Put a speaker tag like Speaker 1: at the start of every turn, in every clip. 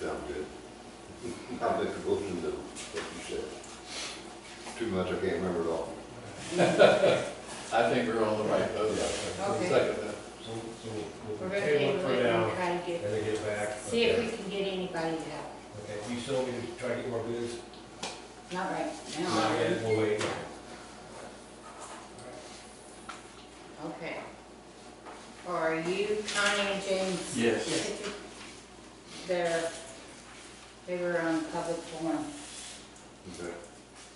Speaker 1: Sound good. I'll make a motion to what you said. Too much, I can't remember it all.
Speaker 2: I think we're on the right
Speaker 3: Yeah.
Speaker 2: road.
Speaker 4: Okay.
Speaker 2: Second that.
Speaker 3: So, so we'll- we'll
Speaker 4: We're gonna
Speaker 3: table it
Speaker 4: table
Speaker 3: for
Speaker 4: it and
Speaker 3: now,
Speaker 4: try to
Speaker 3: and
Speaker 4: get,
Speaker 3: then get back.
Speaker 4: see if we can get anybody to help.
Speaker 3: Okay, you still need to try to get more bids?
Speaker 4: Not right
Speaker 3: Not
Speaker 4: now.
Speaker 3: yet, we'll wait.
Speaker 4: Okay. Are you Connie and James?
Speaker 2: Yes.
Speaker 4: They're, they were on public forum.
Speaker 1: Okay.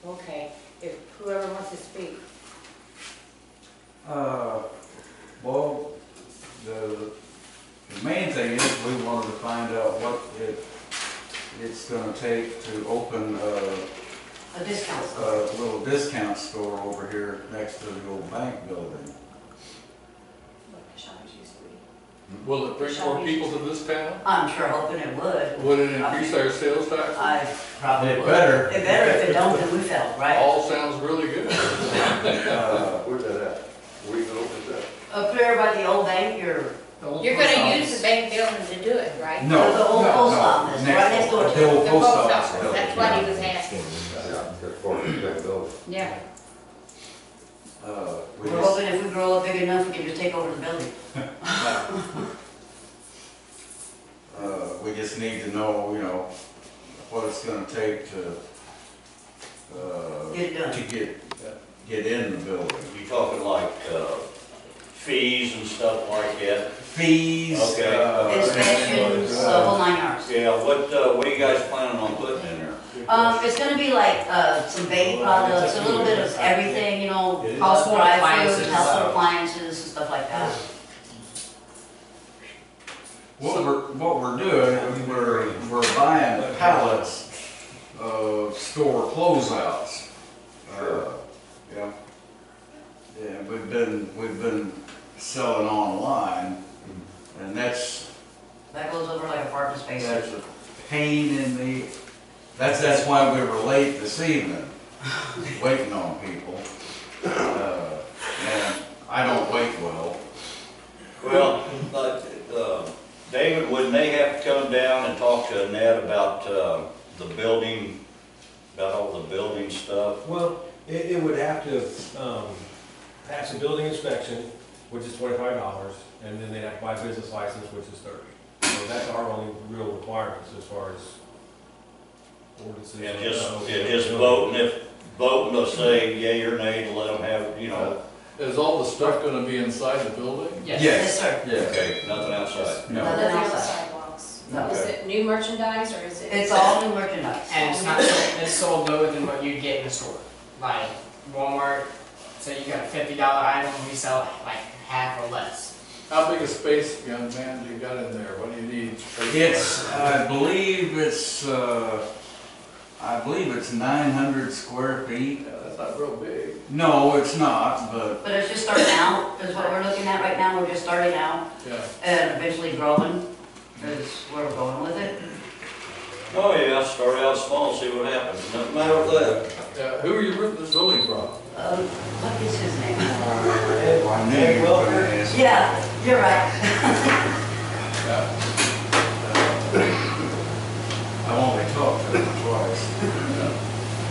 Speaker 4: Okay, if whoever wants to speak,
Speaker 5: Uh, well, the, the main thing is we wanted to find out what it, it's gonna take to open a,
Speaker 6: Uh,
Speaker 4: a discount.
Speaker 5: a little discount store over here next to the old bank building.
Speaker 7: Like the shoppers used to be.
Speaker 2: Will it bring more people to this town?
Speaker 7: I'm sure hoping it would.
Speaker 2: Would it increase our sales tax?
Speaker 7: I probably
Speaker 5: It
Speaker 7: would.
Speaker 5: better,
Speaker 7: It better if it don't, then we fell, right?
Speaker 2: All sounds really good.
Speaker 5: uh,
Speaker 1: Where's that at? Where you gonna open that?
Speaker 7: Up there by the old bank, or
Speaker 4: You're gonna use the bank building to do it, right?
Speaker 5: no,
Speaker 7: The old
Speaker 5: no,
Speaker 7: post
Speaker 5: no,
Speaker 7: office, right
Speaker 5: next-
Speaker 7: next door to
Speaker 5: The old
Speaker 4: The
Speaker 5: post
Speaker 4: post
Speaker 5: office.
Speaker 4: office, that's what he was asking.
Speaker 1: Yeah, that's part of the same building.
Speaker 4: Yeah,
Speaker 5: Uh, we
Speaker 7: we're
Speaker 5: just,
Speaker 7: hoping if we grow up big enough, we can just take over the building.
Speaker 5: uh, we just need to know, you know, what it's gonna take to, uh,
Speaker 7: Get it done.
Speaker 5: to get, uh, get in the building.
Speaker 8: You talking like uh, fees and stuff like that?
Speaker 5: fees.
Speaker 8: Okay.
Speaker 5: uh,
Speaker 7: Inspections, the
Speaker 5: uh,
Speaker 7: whole nine yards.
Speaker 8: Yeah, what, uh, what are you guys planning on putting in there?
Speaker 7: Um, it's gonna be like, uh, some baby products, a little bit of everything, you know, household items,
Speaker 9: uh,
Speaker 7: household appliances and stuff like that.
Speaker 5: What we're, what we're doing, we're, we're buying pallets of store closeouts.
Speaker 1: Sure.
Speaker 5: Uh, Yeah. Yeah, we've been, we've been selling online, and that's,
Speaker 7: That goes over like apartment
Speaker 5: that's
Speaker 7: spaces.
Speaker 5: a pain in the, that's, that's why we were late this evening, waiting on people. Uh, And I don't wait well.
Speaker 8: Well, like, uh, David, wouldn't they have to come down and talk to Annette about uh, the building, about all the building stuff?
Speaker 3: Well, it, it would have to, um, pass a building inspection, which is twenty-five dollars, and then they'd have to buy a business license, which is thirty. So that's our only real requirements as far as ordinances.
Speaker 8: And just, and just voting, if, voting to say yea or nay to let them have, you know,
Speaker 2: Is all the stuff gonna be inside the building?
Speaker 7: Yes, sir.
Speaker 5: Yeah.
Speaker 8: okay, nothing outside.
Speaker 5: No.
Speaker 7: Nothing
Speaker 6: Nothing on the
Speaker 7: else.
Speaker 6: sidewalks.
Speaker 7: No.
Speaker 6: Is it new merchandise or is it?
Speaker 7: It's all new merchandise.
Speaker 9: And it's not, it's sold lower than what you'd get in the store. Like Walmart, say you got a fifty dollar item, we sell like half or less.
Speaker 2: How big a space, young man, you got in there? What do you need?
Speaker 5: It's, I believe it's, uh, I believe it's nine hundred square feet.
Speaker 2: Yeah, that's not real big.
Speaker 5: No, it's not, but
Speaker 7: But it's just starting out, is what we're looking at right now, we're just starting out
Speaker 2: Yeah.
Speaker 7: and eventually growing, is where we're going with it.
Speaker 8: Oh, yeah, start out small, see what happens, no matter what.
Speaker 2: Uh, who are you renting this building from?
Speaker 7: Um, what is his name?
Speaker 5: I knew you were gonna ask.
Speaker 7: Yeah, you're right.
Speaker 5: I only talked to him twice.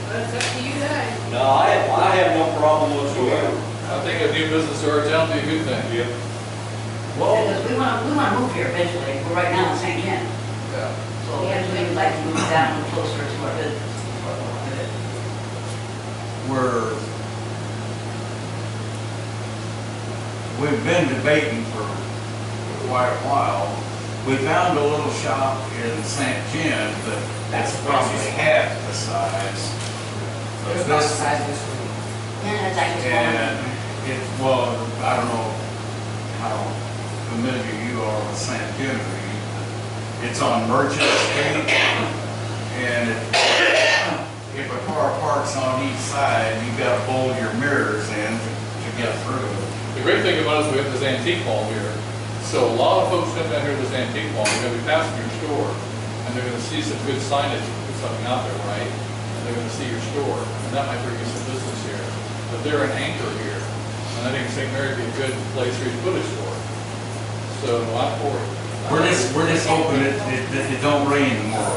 Speaker 6: That's up to you guys.
Speaker 8: No, I, I have no problem whatsoever.
Speaker 2: I think a new business to our town would be a good thing.
Speaker 8: Yeah.
Speaker 7: Because we wanna, we wanna move here eventually, we're right now in St. Ken,
Speaker 2: Yeah.
Speaker 7: so eventually we'd like to move down closer to our business.
Speaker 5: We're, we've been debating for quite a while. We found a little shop in St. Jim, but that's probably half the size of
Speaker 9: It's not the
Speaker 5: this
Speaker 9: size of this room.
Speaker 7: Yeah, that's actually
Speaker 5: And
Speaker 7: smaller.
Speaker 5: it, well, I don't know how familiar you are with San Genevieve, but it's on Merchant Street. And if- if a car parks on each side, you gotta fold your mirrors in to to get through.
Speaker 2: The great thing about us, we have this antique mall here, so a lot of folks come down here to this antique mall, they're gonna be passing your store, and they're gonna see some good signage, put something out there, right? And they're gonna see your store, and that might bring you some business here, but they're an anchor here, and I think St. Mary would be a good place for you to put a store. So I'm for it.
Speaker 5: We're just, we're just hoping it, it, that it don't rain tomorrow.